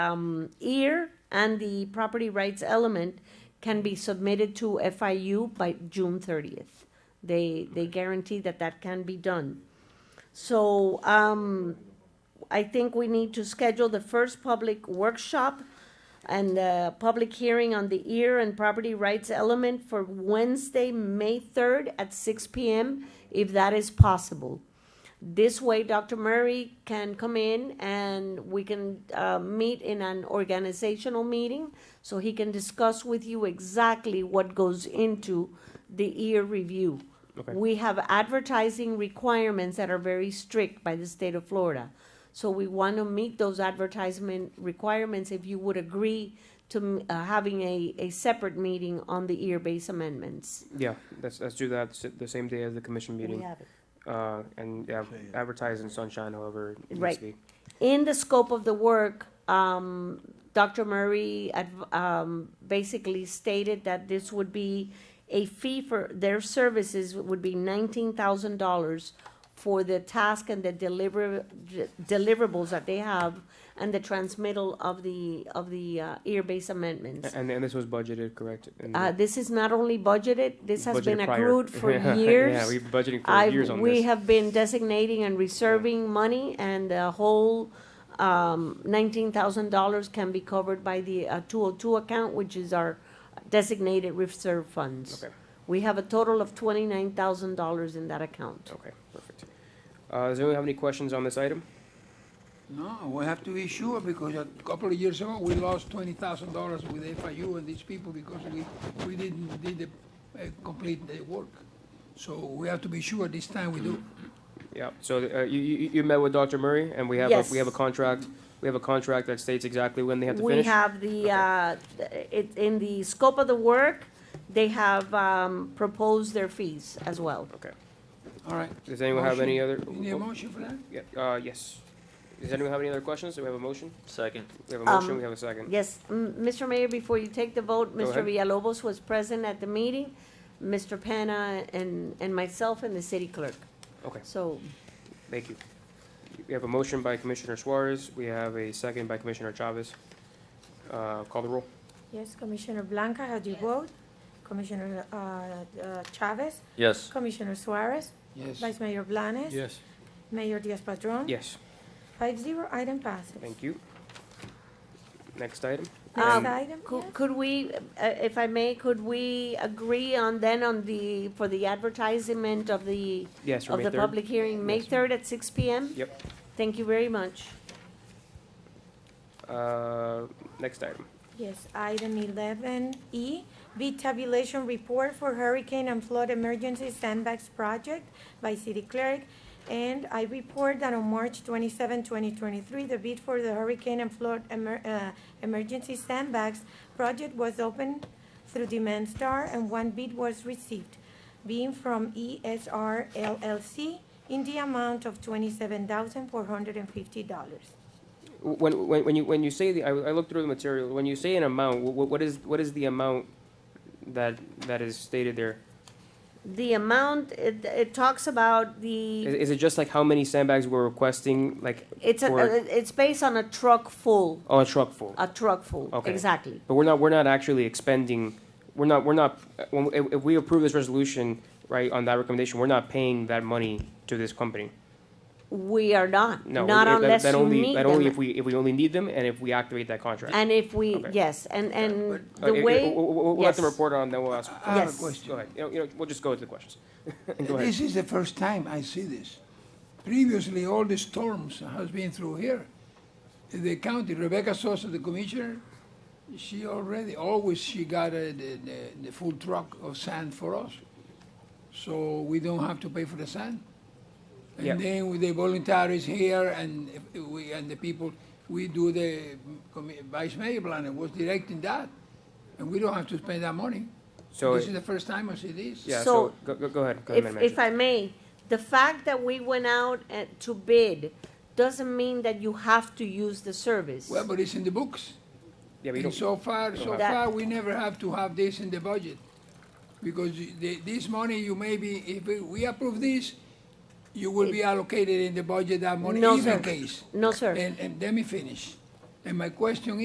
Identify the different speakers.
Speaker 1: um, ear and the property rights element can be submitted to FIU by June thirtieth. They, they guarantee that that can be done. So, um, I think we need to schedule the first public workshop and the public hearing on the ear and property rights element for Wednesday, May third at six P M, if that is possible. This way, Dr. Murray can come in and we can uh, meet in an organizational meeting so he can discuss with you exactly what goes into the ear review.
Speaker 2: Okay.
Speaker 1: We have advertising requirements that are very strict by the state of Florida. So we want to meet those advertisement requirements if you would agree to mm, uh, having a, a separate meeting on the ear-based amendments.
Speaker 2: Yeah, let's, let's do that s- the same day as the commission meeting. Uh, and yeah, advertise in sunshine however it needs
Speaker 1: Right.
Speaker 2: to be.
Speaker 1: in the scope of the work, um, Dr. Murray adv- um, basically stated that this would be a fee for their services would be nineteen thousand dollars for the task and the deliver d- deliverables that they have and the transmittal of the of the uh, ear-based amendments.
Speaker 2: A- And, and this was budgeted, correct? And
Speaker 1: Uh, this is not only budgeted; this has been
Speaker 2: budgeted prior.
Speaker 1: accrued for
Speaker 2: Yeah,
Speaker 1: years.
Speaker 2: Yeah, we've been budgeting for
Speaker 1: I've,
Speaker 2: years on
Speaker 1: we
Speaker 2: this.
Speaker 1: have been designating and reserving money, and the whole um, nineteen thousand dollars can be covered by the two oh two account, which is our designated reserve funds.
Speaker 2: Okay.
Speaker 1: We have a total of twenty-nine thousand dollars in that account.
Speaker 2: Okay, perfect. Uh, does anyone have any questions on this item?
Speaker 3: No, we have to be sure because a couple of years ago, we lost twenty thousand dollars with FIU and these people because we, we didn't, did the, uh, complete the work. So we have to be sure this time we do.
Speaker 2: Yeah, so, uh, you, you, you met with Dr. Murray and we have, a- we have a
Speaker 1: Yes.
Speaker 2: contract, we have a contract that states exactly when they have to
Speaker 1: We
Speaker 2: finish?
Speaker 1: have the, uh, it, in the scope of the work, they have um, proposed their fees as well.
Speaker 2: Okay.
Speaker 3: All right.
Speaker 2: Does anyone have any other? oh,
Speaker 3: Motion. You need a motion for that?
Speaker 2: Yeah, uh, yes. Does anyone have any other questions? Do we have a motion?
Speaker 4: Second.
Speaker 2: We have a
Speaker 1: Um,
Speaker 2: motion, we have a second.
Speaker 1: Yes, m- Mr. Mayor, before you take the vote,
Speaker 2: Go
Speaker 1: Mr.
Speaker 2: ahead.
Speaker 1: Villalobos was present at the meeting, Mr. Penna and, and myself and the city clerk.
Speaker 2: Okay.
Speaker 1: So
Speaker 2: Thank you. We have a motion by Commissioner Suarez. We have a second by Commissioner Chavez. Uh, Call the roll.
Speaker 5: Yes, Commissioner Blanca, how do you vote? Commissioner uh, uh, Chavez?
Speaker 4: Yes.
Speaker 5: Commissioner Suarez?
Speaker 3: Yes.
Speaker 5: Vice Mayor Blanes?
Speaker 4: Yes.
Speaker 5: Mayor Diaz-Padrón?
Speaker 2: Yes,
Speaker 5: Five zero, item passes.
Speaker 2: thank you. Next item.
Speaker 5: Next
Speaker 1: Um,
Speaker 5: item, yes?
Speaker 1: could, could we, uh, if I may, could we agree on then on the, for the advertisement of the,
Speaker 2: Yes, for
Speaker 1: of
Speaker 2: May
Speaker 1: the
Speaker 2: 3rd.
Speaker 1: public hearing, May
Speaker 2: Yes.
Speaker 1: third at six P M?
Speaker 2: Yep.
Speaker 1: Thank you very much.
Speaker 2: Uh, Next item.
Speaker 5: Yes, item eleven E, bid tabulation report for hurricane and flood emergency sandbags project by city clerk. And I report that on March 27, 2023, the bid for the hurricane and flood emer- uh, emergency sandbags project was opened through Demand Star and one bid was received, being from E ESR LLC in the amount of twenty-seven thousand four hundred and fifty dollars.
Speaker 2: When, when, when you, when you say the, I, I looked through the material, when you say an amount, what, what is, what is the amount that, that is stated there?
Speaker 1: The amount, it, it talks about the.
Speaker 2: Is, is it just like how many sandbags we're requesting, like?
Speaker 1: It's a,
Speaker 2: for-
Speaker 1: uh, it's based on a truck full,
Speaker 2: Oh, a truck full?
Speaker 1: a truck full,
Speaker 2: Okay.
Speaker 1: exactly.
Speaker 2: But we're not, we're not actually expending, we're not, we're not, when, if, if we approve this resolution, right, on that recommendation, we're not paying that money to this company.
Speaker 1: We are not,
Speaker 2: No.
Speaker 1: not
Speaker 2: that-
Speaker 1: unless
Speaker 2: that
Speaker 1: you
Speaker 2: only-
Speaker 1: need
Speaker 2: That only
Speaker 1: them.
Speaker 2: if we, if we only need them and if we activate that contract.
Speaker 1: And if we,
Speaker 2: Okay.
Speaker 1: yes, and, and
Speaker 2: Uh,
Speaker 1: the
Speaker 2: it- it-
Speaker 1: way,
Speaker 2: We'll, we'll- we'll let them
Speaker 1: yes.
Speaker 2: report on, then we'll ask.
Speaker 3: I have a
Speaker 1: Yes.
Speaker 2: Go
Speaker 3: question.
Speaker 2: ahead, you know, you know, we'll just go to the questions. Go ahead.
Speaker 3: This is the first time I see this. Previously, all the storms has been through here. The county, Rebecca Sosa, the commissioner, she already, always she got uh, the, the, the full truck of sand for us. So we don't have to pay for the sand.
Speaker 2: Yeah.
Speaker 3: And then with the volunteers here and if we, and the people, we do the commi- vice mayor plan was directing that. And we don't have to spend that money.
Speaker 2: So,
Speaker 3: This is the first time I see this.
Speaker 2: yeah, so,
Speaker 1: So-
Speaker 2: go, go, go ahead, go ahead,
Speaker 1: if,
Speaker 2: Madam
Speaker 1: if
Speaker 2: Manager.
Speaker 1: I may, the fact that we went out uh, to bid doesn't mean that you have to use the service.
Speaker 3: Well, but it's in the books.
Speaker 2: Yeah, but you
Speaker 3: And
Speaker 2: don't,
Speaker 3: so far,
Speaker 2: don't
Speaker 3: so
Speaker 2: have-
Speaker 3: far, we never have to have this in the budget. Because you- the, this money, you may be, if we- we approve this, you will be allocated in the budget that money,
Speaker 1: No,
Speaker 3: even
Speaker 1: sir.
Speaker 3: case.
Speaker 1: No, sir.
Speaker 3: And, and let me finish. And my question